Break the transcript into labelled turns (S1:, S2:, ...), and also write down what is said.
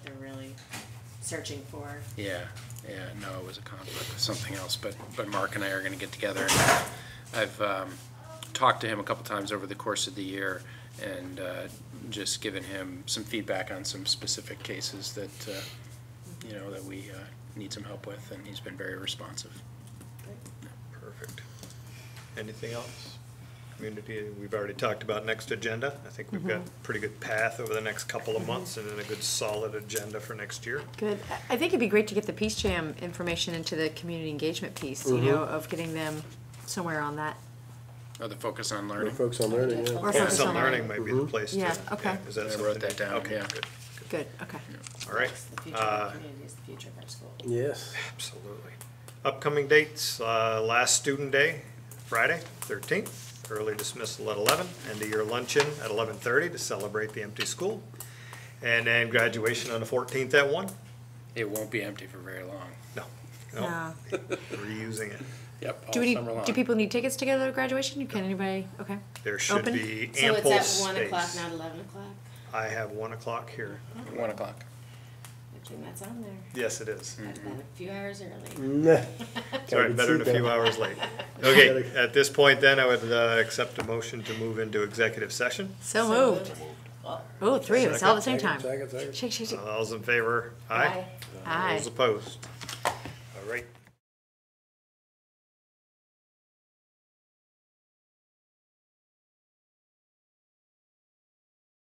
S1: searching for.
S2: Yeah, yeah, no, it was a conflict with something else, but, but Mark and I are gonna get together. and I've, um, talked to him a couple times over the course of the year and, uh, just given him some feedback on some specific cases that, uh, you know, that we, uh, need some help with, and he's been very responsive.
S3: Perfect. Anything else? Community, we've already talked about next agenda. I think we've got a pretty good path over the next couple of months and then a good solid agenda for next year.
S4: Good. I- I think it'd be great to get the Peace Jam information into the community engagement piece, you know, of getting them somewhere on that.
S2: Oh, the focus on
S5: We're
S2: learning?
S5: focused on learning, yeah.
S4: Or
S3: Yeah,
S4: focus
S3: some
S4: on
S3: learning might be the
S5: Mhm.
S3: place to.
S4: Yeah, okay.
S3: Is that
S2: Mm-hmm. I wrote
S3: something?
S2: that down,
S3: Okay,
S2: yeah.
S3: good.
S4: Good, okay.
S3: All right.
S1: It's the future
S3: Uh, Mm-hmm.
S1: of our community, it's the future of our school.
S5: Yes.
S3: Absolutely. Upcoming dates, uh, last student day, Friday, thirteenth, early dismissal at eleven, end of year luncheon at eleven thirty to celebrate the empty school. And then graduation on the fourteenth at one?
S2: It won't be empty for very long.
S3: No, no,
S4: Uh,
S3: we're using it.
S2: Yep, all
S4: Do we need,
S2: summer long.
S4: do people need tickets to go to graduation? Can anybody, okay.
S3: There should
S4: Open?
S3: be
S1: So
S3: ample space.
S1: it's at one o'clock, not eleven o'clock?
S3: I have one o'clock here.
S2: One o'clock.
S1: I think that's on there.
S3: Yes, it is.
S1: I've been a few hours
S3: Mm-hmm.
S1: early.
S5: Nah.
S3: It's all right, better than a few hours late. Okay, at this point then, I would uh, accept a motion to move into executive session.
S4: So moved. Oh, three of us all at the same time.
S5: Second, second.
S4: Shake, shake, shake.
S3: All those in favor? Aye.
S4: Aye.
S3: Those opposed? All right.